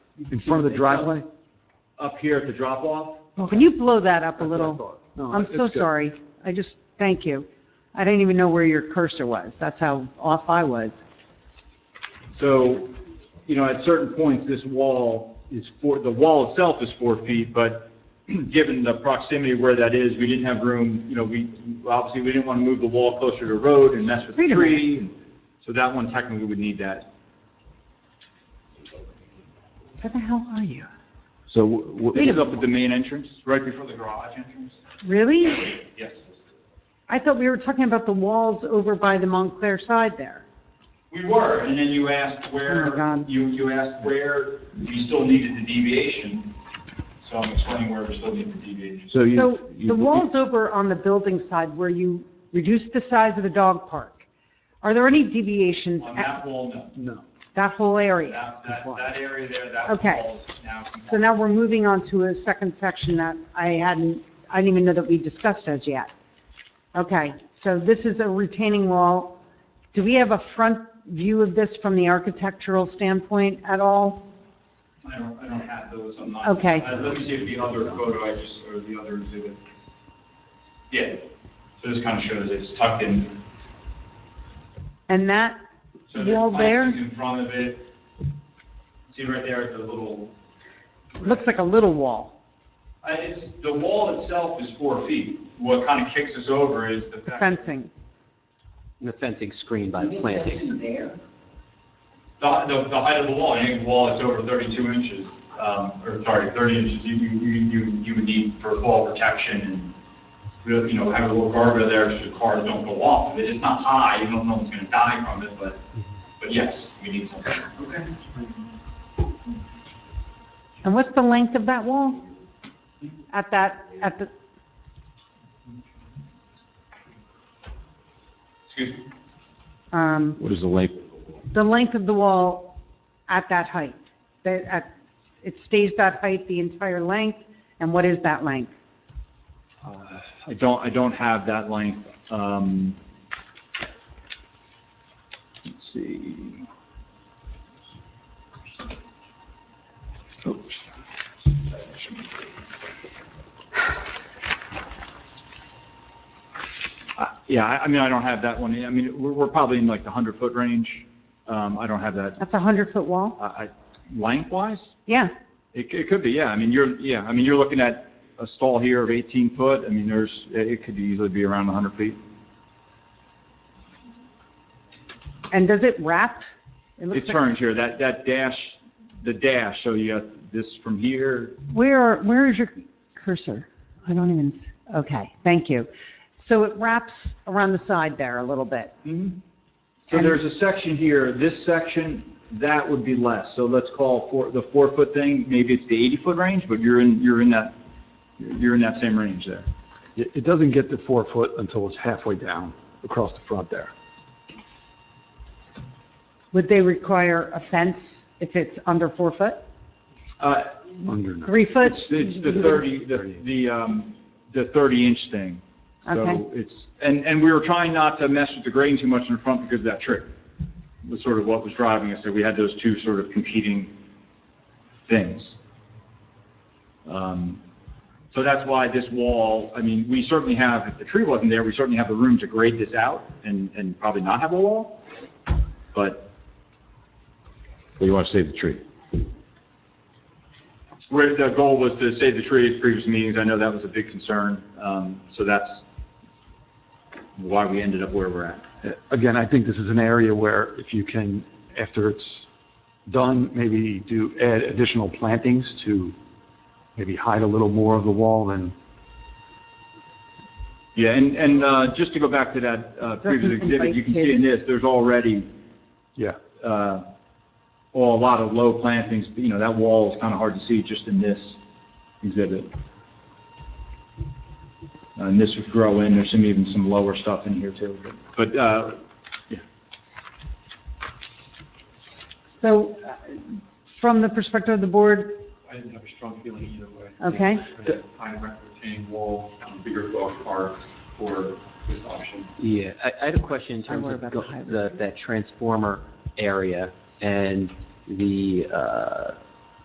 you can in see front of the it's up- driveway? Up here at the drop off. Can you blow that up a That's what I little? thought. No, I'm it's so good. sorry. I just, thank you. I didn't even know where your cursor was. That's how off I was. So, you know, at certain points, this wall is four, the wall itself is four feet, but given the proximity where that is, we didn't have room, you know, we, obviously, we didn't want to move the wall closer to the road and mess with the Wait a tree. and So that one technically would need that. Where the hell are you? So w- w- This is up at the main entrance, right before the garage entrance. Really? Yes. I thought we were talking about the walls over by the Montclair side there. We were, and then you asked Oh, where, my God. you, you asked where we still needed the deviation. So I'm explaining where we still need the deviation. so you. So you- the walls over on the building side where you reduced the size of the dog park, are there any deviations On at that wall, no. No. that whole area? That, that, that area there, that Okay, wall is now. so now we're moving on to a second section that I hadn't, I didn't even know that we discussed as yet. Okay, so this is a retaining wall. Do we have a front view of this from the architectural standpoint at all? I don't, I don't have those, I'm not. Okay. Uh, Let me see if the other photo I just, or the other exhibit. Yeah, so this kind of shows it, it's tucked in. And that, So Wall there's there? plantings in front of it. See right there at the little, Looks like a little wall, uh, it's, the wall itself is four feet. What kind of kicks us over is the fact. fencing. The fencing screened by plantings. The, the, the height of the wall, any wall that's over 32 inches, um, or sorry, 30 inches, you, you, you, you- you would need for fall protection and, really, you know, have a little guardrail there so the cars don't go off of it. It's not high, you don't know one's gonna die from it, but, but yes, we need something. Okay. And what's the length of that wall? At that, at the, Excuse me? um, What is the length? the length of the wall at that height? That, at, it stays that height the entire length, and what is that length? I don't, I don't have that length. Um, let's see. Oops. Uh, Yeah, I, I mean, I don't have that one. I mean, we're, we're probably in like the hundred foot range. Um, I don't have that, That's a 100-foot wall? I, I, length wise? Yeah, It, it could be, yeah. I mean, you're, yeah, I mean, you're looking at a stall here of 18 foot. I mean, there's, it it could easily be around 100 feet. and does it wrap? It It looks like- turns here, that, that dash, the dash, so you got this from here. Where, where is your cursor? I don't even, s- okay, thank you. So it wraps around the side there a little bit. So there's a section here, this section, that would be less. So let's call for, the four foot thing, maybe it's the 80 foot range, but you're in, you're in that, you're in that same range there. It, it doesn't get to four foot until it's halfway down across the front there. Would they require a fence if it's under four foot? Uh, Under nine. Three foot? It's, it's the 30, the, the, um, the 30 inch thing. Okay. So it's, and, and we were trying not to mess with the grading too much in the front because of that trick was sort of what was driving us, that we had those two sort of competing things. Um, So that's why this wall, I mean, we certainly have, if the tree wasn't there, we certainly have the room to grade this out and, and probably not have a wall. But Well, you want to save the tree. Where the goal was to save the tree at previous meetings, I know that was a big concern, um, so that's why we ended up where we're at. Again, I think this is an area where if you can, after it's done, maybe do, add additional plantings to maybe hide a little more of the wall than, Yeah, and, and uh, just to go back to that uh, previous Doesn't exhibit, invite you can see in kids. this, there's already yeah. uh, well, a lot of low plantings, you know, that wall is kind of hard to see just in this exhibit. Uh, And this would grow in, there's some, even some lower stuff in here too, but, uh, So uh, from the perspective of the board, I didn't have a strong feeling either way. Okay. I recommend wall, um, bigger dog park for this option. Yeah, I, I had a question in terms worry of about go- the hybrid. the, that transformer area and the, uh,